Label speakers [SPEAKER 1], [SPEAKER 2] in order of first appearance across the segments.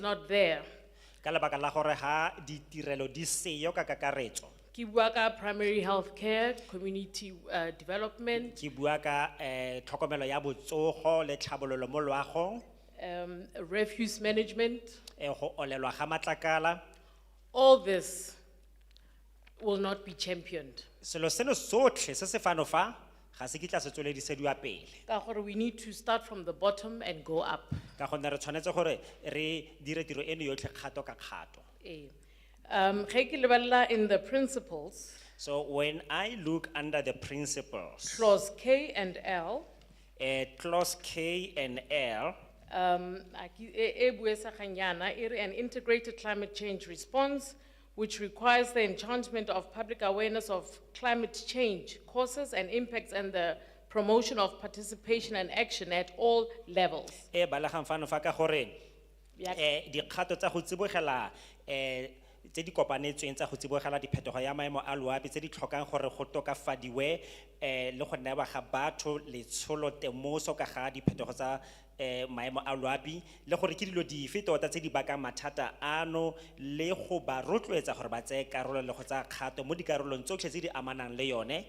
[SPEAKER 1] not there.
[SPEAKER 2] Ka lebaka la gore ha ditirelo di seyo ka kakaretso.
[SPEAKER 1] Ki bua ka primary healthcare, community uh, development,
[SPEAKER 2] Ke bua ka eh tlhokomelo ya botsogo le tlhabololo mo loago,
[SPEAKER 1] um, refuse management,
[SPEAKER 2] eh go olelwa ga matlakala.
[SPEAKER 1] all this will not be championed.
[SPEAKER 2] Selo seno sotlhe se se fano fa ga se kitla se tsweledisedwa pele.
[SPEAKER 1] Ka gore we need to start from the bottom and go up.
[SPEAKER 2] Ka gonne re tshwanetse gore re dire tiro eno yotlhe kgato ka kgato.
[SPEAKER 1] Eh. Um, ge ke lebelela in the principles,
[SPEAKER 2] So when I look under the principles,
[SPEAKER 1] clause K and L,
[SPEAKER 2] eh clause K and L,
[SPEAKER 1] um, a ke- e e buesaganyana, e re an integrated climate change response which requires the enchantment of public awareness of climate change causes and impacts and the promotion of participation and action at all levels.
[SPEAKER 2] e balagang fano fa ka gore
[SPEAKER 1] Ya-
[SPEAKER 2] eh dikgato tsa go tsibogela eh tse di kopanetsweng tsa go tsibogela diphetogo ya maemo a loapi tse di tlhokang gore go tokafadiwe eh le go newa ga batho letsholo temoso ka ga diphetogo tsa eh maemo a loapi le gore ke dilo dife tota tse di bakang mathata ano le go ba rotloetsa gore ba tseye karolo le go tsaya kgato mo dikarolong tsotlhe tse di amanang le yone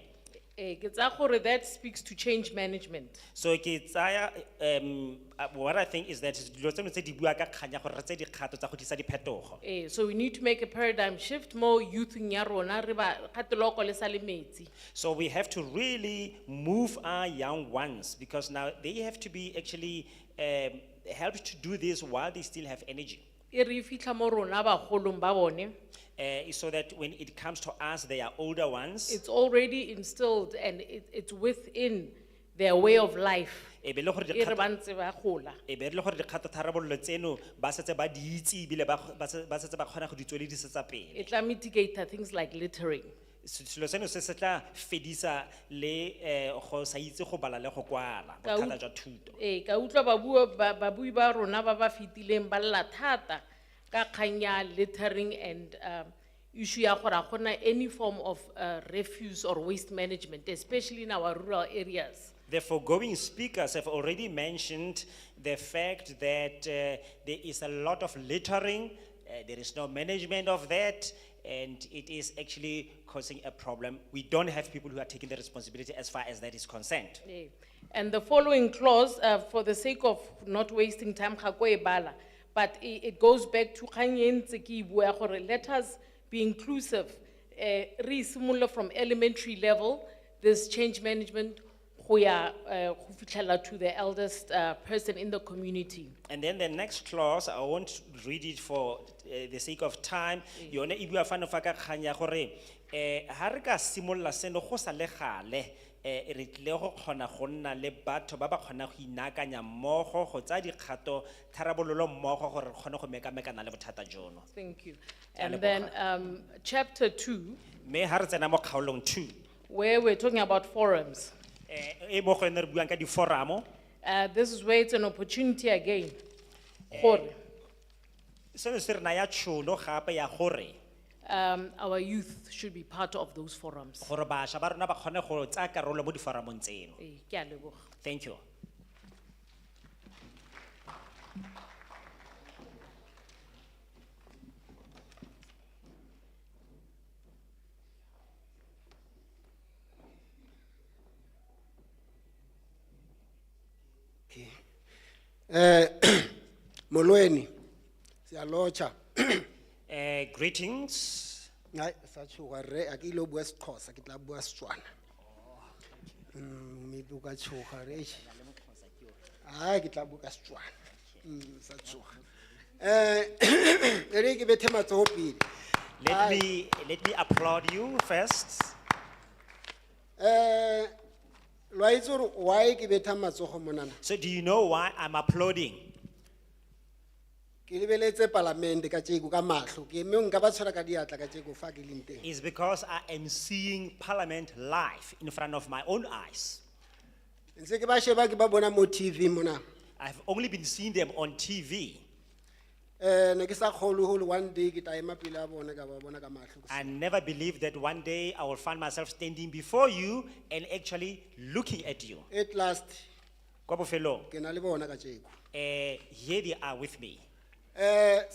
[SPEAKER 1] Eh, ke tsaya gore that speaks to change management.
[SPEAKER 2] so ke tsaya um uh, what i think is that dilo tseno tse di bua ka kganya gore re tse dikgato tsa go tlisa diphetogo
[SPEAKER 1] Eh, so we need to make a paradigm shift mo youthing ya rona, re ba kateloko le sa le metsi.
[SPEAKER 2] So we have to really move our young ones because now they have to be actually um, helped to do this while they still have energy.
[SPEAKER 1] E re e fitlha mo rona bagolong ba bone,
[SPEAKER 2] Uh, so that when it comes to us, they are older ones.
[SPEAKER 1] it's already instilled and it, it's within their way of life.
[SPEAKER 2] E be le gore
[SPEAKER 1] e re
[SPEAKER 2] dikgato-
[SPEAKER 1] ba ntse ba gola.
[SPEAKER 2] e be le gore dikgato tharabololo tseno ba setse ba di itse ebile ba kg- ba se- ba setse ba kgona go di tsweledisetsa pele.
[SPEAKER 1] E tla mitigate things like littering.
[SPEAKER 2] Se- Selo seno se se tla fedisa le eh, go sa itse go bala le go kwala,
[SPEAKER 1] Ka
[SPEAKER 2] bothata
[SPEAKER 1] ut-
[SPEAKER 2] jwa thuto.
[SPEAKER 1] Eh, ka utlwa ba bua, ba, ba bui ba rona ba ba fitileng ba lla thata ka kgang ya littering and um, issue ya gore ga gona any form of uh, refuse or waste management, especially in our rural areas.
[SPEAKER 2] The foregoing speakers have already mentioned the fact that uh, there is a lot of littering, uh, there is no management of that, and it is actually causing a problem. We don't have people who are taking the responsibility as far as that is concerned.
[SPEAKER 1] Eh, And the following clause, uh, for the sake of not wasting time, ga ko e bala, but it, it goes back to kgang e ntse ke e bua gore let us be inclusive. Eh, re simolola from elementary level, this change management, go ya, eh, go fitlhela to the eldest, uh, person in the community.
[SPEAKER 2] And then the next clause, I won't read it for uh, the sake of time. Yone e bua fano fa ka kgang ya gore eh ha re ka simolla seno go sa le gale eh re tle go kgona go nna le batho ba ba kgona go inakanya mmogo go tsa dikgato tharabololo mmogo gore re kgone go mekamekana le bothata jono.
[SPEAKER 1] Thank you.
[SPEAKER 2] Ke a
[SPEAKER 1] And
[SPEAKER 2] leboga.
[SPEAKER 1] then, um, chapter two,
[SPEAKER 2] Me ha re tsena mo kgaolong two.
[SPEAKER 1] where we're talking about forums.
[SPEAKER 2] Eh e mo go yone re buang ka di foramo.
[SPEAKER 1] Uh, this is where it's an opportunity again.
[SPEAKER 2] Eh,
[SPEAKER 1] Gore,
[SPEAKER 2] Seno se re naya tšhono gape ya gore
[SPEAKER 1] um, our youth should be part of those forums.
[SPEAKER 2] gore bašwa ba rona ba kgone go tsaya karolo mo diforamong tseno.
[SPEAKER 1] Eh, ke a leboga.
[SPEAKER 2] Thank you.
[SPEAKER 3] Eh, molweni, siyalocha.
[SPEAKER 2] Uh, greetings.
[SPEAKER 3] Hayi, sachuka re, akilo bua Xhosa, kitla bua Setswana. Mm, mipu ka chuka re. Hayi, kitla bua Setswana. Mm, sachuka. Eh, eri ke bethe matsoho pele.
[SPEAKER 2] Let me, let me applaud you first.
[SPEAKER 3] Eh, lwa itse hore why ke betha matsoho monana?
[SPEAKER 2] So do you know why I'm applauding?
[SPEAKER 3] Ke lebeletse palamente ka tjeko ka mahlo, ke mme nka ba tshwara ka diatla ka tjeko fa ke leng teng.
[SPEAKER 2] It's because I am seeing Parliament live in front of my own eyes.
[SPEAKER 3] Ntse ke ba sheba ke ba bona mo TV mona.
[SPEAKER 2] I've only been seeing them on TV.
[SPEAKER 3] Eh, ne ke sa kgolwe hore one day ke tla ema pele a bona ka ba bona ka mahlo.
[SPEAKER 2] I never believed that one day I will find myself standing before you and actually looking at you.
[SPEAKER 3] At last,
[SPEAKER 2] Kwa bofelong,
[SPEAKER 3] ke na le bona ka tjeko.
[SPEAKER 2] eh, here they are with me.
[SPEAKER 3] Eh,